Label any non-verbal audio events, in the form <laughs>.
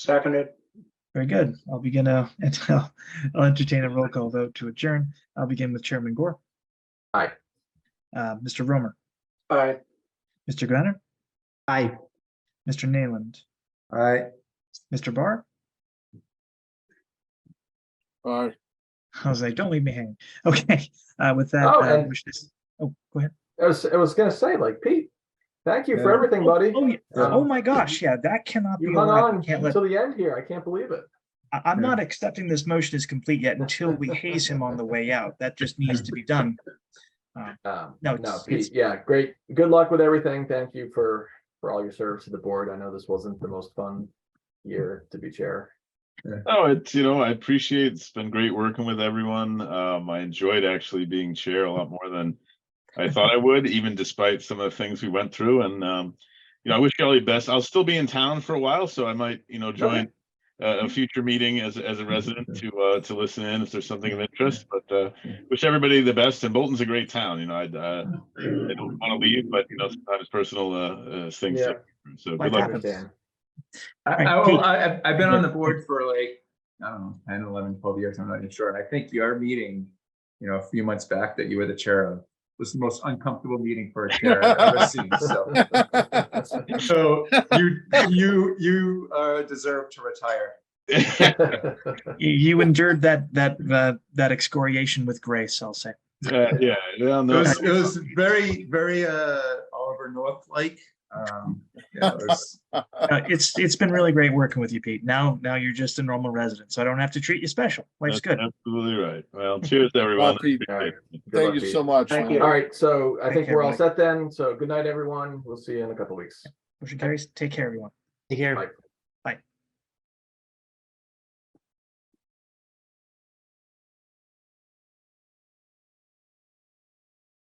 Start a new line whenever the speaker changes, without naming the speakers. Seconded.
Very good. I'll begin, uh, <laughs> and I'll I'll entertain a roll call vote to adjourn. I'll begin with Chairman Gore.
Aye.
Uh, Mr. Romer,
Aye.
Mr. Gunner,
Aye.
Mr. Nayland,
Aye.
Mr. Barr.
Aye.
I was like, don't leave me hanging. <laughs> Okay, uh, with that,
Oh,
I
and-
wish this, oh, go ahead.
I was, I was gonna say, like, Pete, thank you for
Yeah.
everything, buddy.
Oh, yeah.
Um,
Oh, my gosh. Yeah, that cannot be.
You hung
allowed. We
on
can't let-
till the end here. I can't believe it.
I, I'm
Yeah.
not accepting this motion as complete yet until we haze him on the way out. That just needs to be done.
Um,
No,
no,
it's-
Pete,
it's-
yeah, great. Good luck with everything. Thank you for, for all your service to the board. I know this wasn't the most fun year to be chair.
Oh, it's, you know, I appreciate, it's been great working with everyone. Um, I enjoyed actually being chair a lot more than I thought I would, even despite some of the things we went through and, um, you know, I wish you all the best. I'll still be in town for a while, so I might, you know, join a, a future meeting as, as a resident to, uh, to listen in if there's something of interest, but, uh, wish everybody the best and Bolton's a great town, you know, I'd, uh, I don't want to leave, but you know, sometimes personal, uh, uh, things,
Yeah.
so
Life
good
I
luck.
happens.
understand. <laughs>
I,
Right,
I,
Pete.
will- I, I've- I've been on the board for like, I don't know, 10, 11, 12 years, I'm not even sure. And I think your meeting, you know, a few months back that you were the chair of, was the most uncomfortable meeting for a chair I've ever seen,
<laughs>
so. So you, you, you uh, deserve to retire.
You, you endured that, that, uh, that excoriation with grace, I'll say.
<laughs> Uh, Yeah, yeah,
It
no.
was, it was very, very uh, Oliver North-like. Um, yeah, it was-
Uh, it's, it's been really great working with you, Pete. Now, now you're just a normal resident, so I don't have to treat you special. Life's
That's
good.
Absolutely right. Well, cheers, everyone.
Lucky.
Appreciate it.
Good luck,
Thank you
Pete.
so much.
Thank
man.
you.
All right, so I
Take
think
care,
we're all
buddy.
set then. So good night, everyone. We'll see you in a couple weeks.
Motion carries. Take care, everyone.
Take care.
Bye.